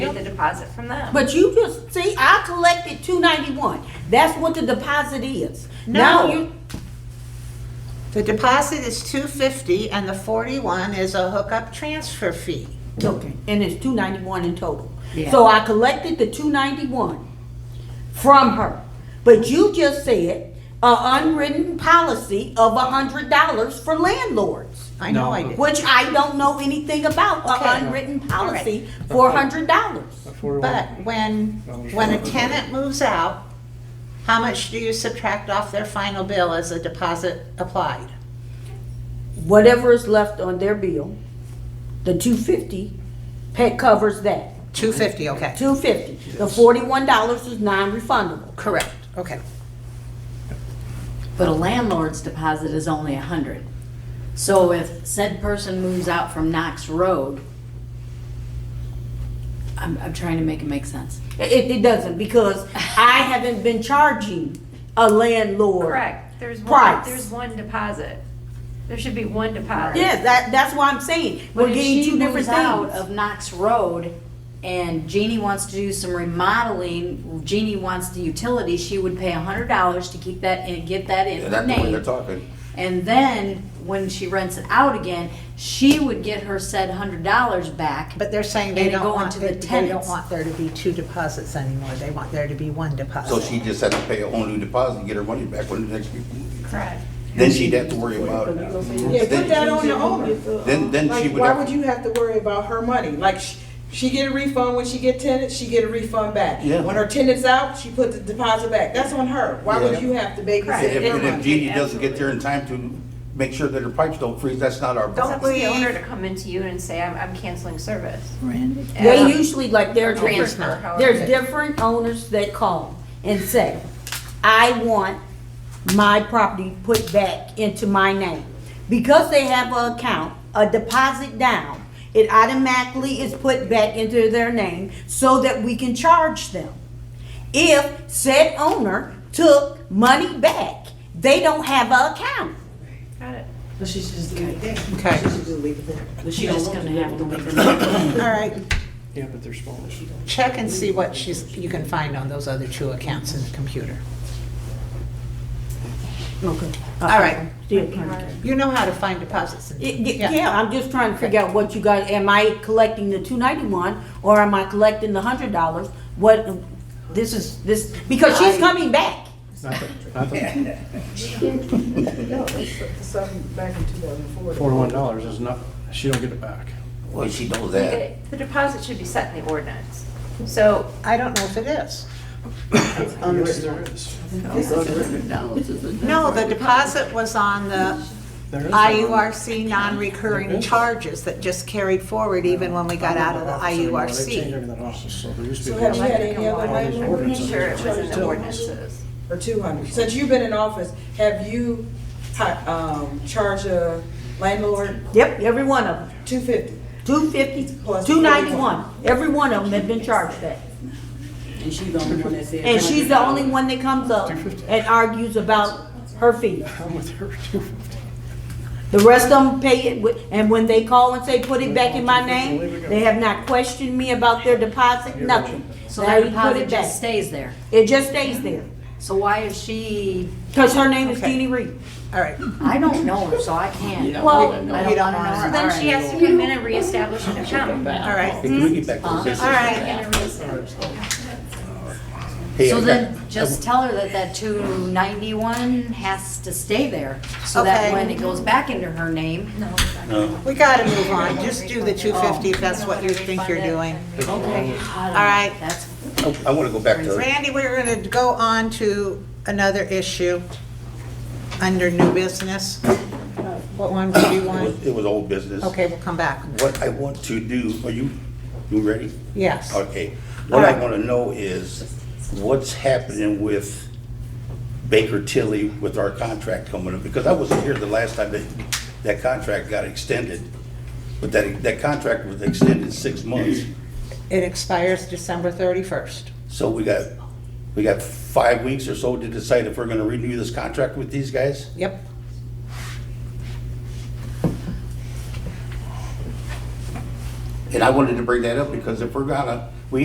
Get the deposit from them. But you just, see, I collected two ninety-one, that's what the deposit is. Now No. you- The deposit is two fifty and the forty-one is a hookup transfer fee. Okay, and it's two ninety-one in total. Yeah. So I collected the two ninety-one from her, but you just said a unwritten policy of a hundred dollars for landlords, I know I No. did. which I don't know anything about, a Okay. unwritten policy for a hundred dollars. But when, when a tenant moves out, how much do you subtract off their final bill as a deposit applied? Whatever is left on their bill, the two fifty covers that, Two fifty, okay. two fifty. The forty-one dollars is non-refundable. Correct, okay. But a landlord's deposit is only a hundred. So if said person moves out from Knox Road, I'm, I'm trying to make it make sense. It, it doesn't, because I haven't been charging a landlord. Correct, there's one, Price. there's one deposit. There should be one deposit. Yeah, that, that's what I'm saying, But we're if getting she two different moves out things. of Knox Road and Jeannie wants to do some remodeling, Jeannie wants the utility, she would pay a hundred dollars to keep that and get that in Yeah, her that's the way name. they're talking. And then when she rents it out again, she would get her said hundred dollars back. But they're saying they And it don't go want, into they the they don't tenants. want there to be two deposits anymore. They want there to be one deposit. So she just had to pay a whole new deposit and get her money back when the next people move. Correct. Then she'd have to worry about it. Yeah, Then- put that on the owner. Then, then she Like, would why would have, you have to worry about her money? Like, sh- she get a refund when she get tenants, she get a refund back. Yeah. When her tenant's out, she put the deposit back. That's on her. Why Yeah. would you have to Right. babysit and if, their and if money? Jeannie doesn't get there in time to make sure that her pipes don't freeze, that's not our It's up to problem. the owner to come into you and say, I'm, I'm canceling service. They usually, like, there's, Or different- for however there's it- different owners that call and say, I want my property put back into my name. Because they have an account, a deposit down, it automatically is put back into their name so that we can charge them. If said owner took money back, they don't have an account. Got it. But she should just leave it there. Okay. She should just leave it there. But she You're don't just want gonna to. have to wait another. All right, Yeah, but they're small. check and see what she's, you can find on those other two accounts in the computer. Okay. All right, Still counting. you know how to find deposits. Y- in- y- Yeah, I'm just trying to figure out what you got, am I collecting the two ninety-one, or am I collecting the hundred dollars? What, this is, this, because she's coming back. Not the- not the- No, it's something back in 2004. Forty-one dollars is not, she don't get it back. Well, she knows that. The deposit should be set in the ordinance. So I don't know if it is. Yes, there is. No, the deposit was on the There is. IURC non-recurring charges that just carried forward even when we got out of the They changed IURC. everything else, so there used to So be. have you I'd had like to any other come on. landlord? I'm pretty sure it was in the ordinances. Or two hundred? Since you've been in office, have you, hi- um, charged a landlord Yep, every one of them, two fifty? two fifty, Plus two ninety-one, every one of them have been charged that. And she's the only one that said. And she's the only one that comes up and argues about her fees. I'm with her too. The rest of them pay it, with- and when they call and say, put it back in my name, they have not questioned me about their deposit, nothing. So They that put deposit it back. just stays there. It just stays there, So why is she, because her name is Okay. Jeannie Reed. All right. I don't know her, so I can't. Well, I We don't don't wanna know know her. her. Then she has to come in and reestablish an account. All right, Can we get back to the Huh? business? all right. And reestablish- Hey, I So got- then, just tell her that that two ninety-one has to stay there, so Okay. that when it goes back into her name. No. We gotta move on. Just do the two fifty if that's what you think you're doing. Okay. All right. That's, I- I want to go back to Randy, we're gonna go on to another issue under new business. What one do you It want? was- It was old business. Okay, we'll come back. What I want to do, are you, you ready? Yes. Okay. What I want to know is what's happening with Baker Tilly with our contract coming up? Because I wasn't here the last time that, that contract got extended. But that, that contract was extended six months. It expires December thirty-first. So we got, we got five weeks or so to decide if we're going to renew this contract with these guys? Yep. And I wanted to bring that up because if we're gonna